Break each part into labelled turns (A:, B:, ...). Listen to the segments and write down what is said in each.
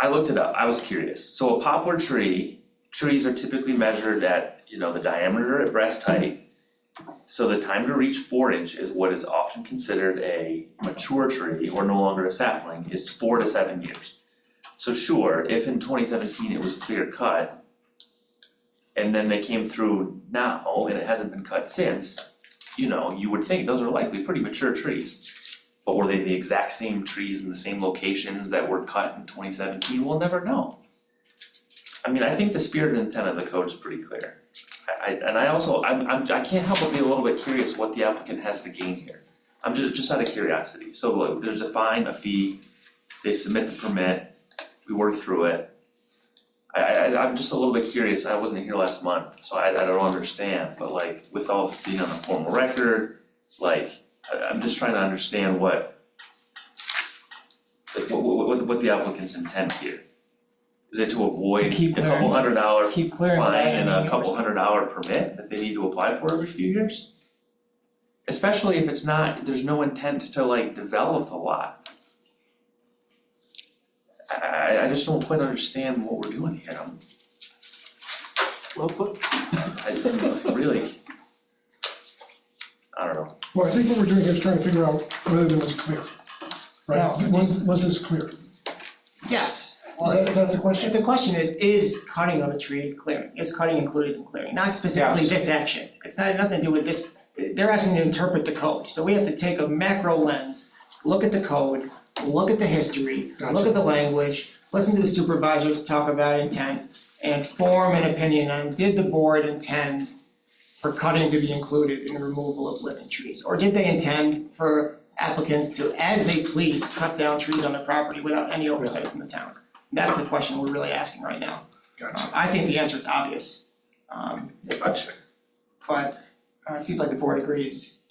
A: I looked it up, I was curious, so a poplar tree, trees are typically measured at, you know, the diameter at breast height. So the time to reach four inch is what is often considered a mature tree or no longer a sapling, is four to seven years. So sure, if in twenty seventeen it was clear cut. And then they came through now and it hasn't been cut since, you know, you would think those are likely pretty mature trees. But were they the exact same trees in the same locations that were cut in twenty seventeen? We'll never know. I mean, I think the spirit and intent of the code is pretty clear. I I and I also, I'm I'm I can't help but be a little bit curious what the applicant has to gain here. I'm just just out of curiosity, so like there's a fine, a fee, they submit the permit, we work through it. I I I'm just a little bit curious, I wasn't here last month, so I I don't understand, but like with all this being on the formal record, like I I'm just trying to understand what like what what what what the applicant's intent here. Is it to avoid
B: keep
A: a couple
B: clearing-
A: hundred dollar
B: Keep clearing that
A: fine
B: and
A: and a couple
B: 100%.
A: hundred dollar permit that they need to apply for every few years? Especially if it's not, there's no intent to like develop the lot. I I I just don't quite understand what we're doing here, I'm
C: Well put.
A: I I'm really. I don't know,
D: Well, I think what we're doing here is trying to figure out whether there was clear, right?
B: No.
D: Was, was this clear? Is
C: Yes.
D: that, that's the
C: And
D: question?
C: the question is, is cutting of a tree clearing, is cutting included in clearing, not specifically
B: Yes.
C: this action, it's not, nothing to do with this. They're asking to interpret the code, so we have to take a macro lens, look at the code, look at the history, look
D: Gotcha.
C: at the language, listen to the supervisors talk about intent, and form an opinion on, did the board intend for cutting to be included in the removal of living trees? Or did they intend for applicants to, as they please, cut down trees on their property without any oversight from the town? That's the question we're really asking right now.
D: Gotcha.
C: Um, I think the answer is obvious. Um,
D: Gotcha.
C: but uh, it seems like the board agrees.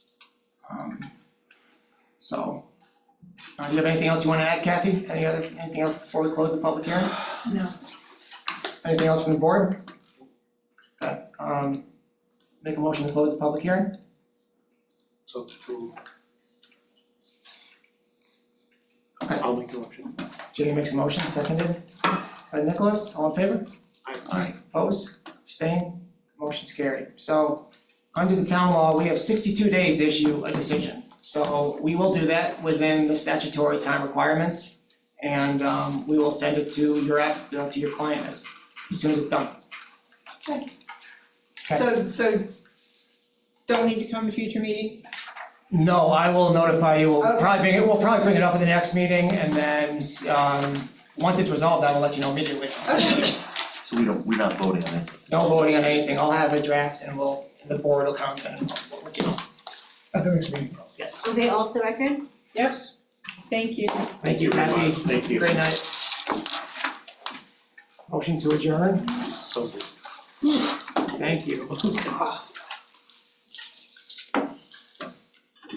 C: Um, so, uh, you have anything else you wanna add, Kathy? Any other, anything else before we close the public hearing?
E: No.
C: Anything else from the board? Okay, um, make a motion to close the public hearing?
B: So approved.
C: Okay.
B: I'll make the motion.
C: Jenny makes a motion, seconded by Nicholas, all in favor?
A: Aye.
C: Opposed, abstained, motion's carried. So, under the town law, we have sixty-two days to issue a decision. So we will do that within the statutory time requirements. And um we will send it to your app, you know, to your client as as soon as it's done. Okay.
E: So, so don't need to come to future meetings?
C: No, I will notify you, we'll
E: Okay.
C: probably bring it, we'll probably bring it up at the next meeting and then um once it's resolved, I will let you know immediately.
E: Okay.
A: so we don't, we're not voting on it.
C: No voting on anything, I'll have a draft and we'll, and the board will comment on it, we'll let you know.
D: At the next meeting.
C: yes.
F: Are they off the record?
E: Yes. Thank you.
C: Thank you, Kathy.
B: Thank you.
C: Great night. Motion to adjourn,
B: So moved.
C: thank you.